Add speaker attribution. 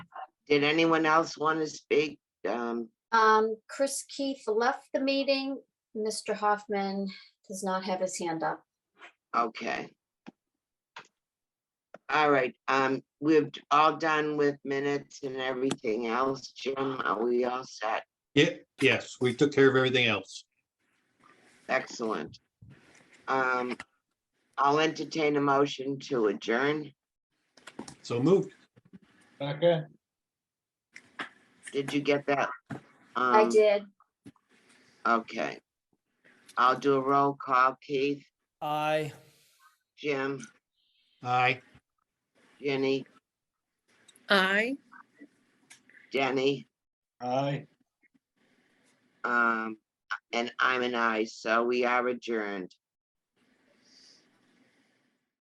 Speaker 1: Did anyone else want to speak? Um,
Speaker 2: Um, Chris Keith left the meeting. Mr. Hoffman does not have his hand up.
Speaker 1: okay. All right, um, we're all done with minutes and everything else. Jim, are we all set?
Speaker 3: Yeah, yes, we took care of everything else.
Speaker 1: Excellent. Um, I'll entertain a motion to adjourn.
Speaker 3: So moved.
Speaker 4: Second,
Speaker 1: Did you get that?
Speaker 2: I
Speaker 1: Um,
Speaker 2: did.
Speaker 1: Okay. I'll do a roll call. Keith,
Speaker 5: Aye.
Speaker 1: Jim,
Speaker 3: Aye.
Speaker 1: Jenny,
Speaker 6: Aye.
Speaker 1: Denny,
Speaker 4: aye.
Speaker 1: um, and I'm an I, so we are adjourned.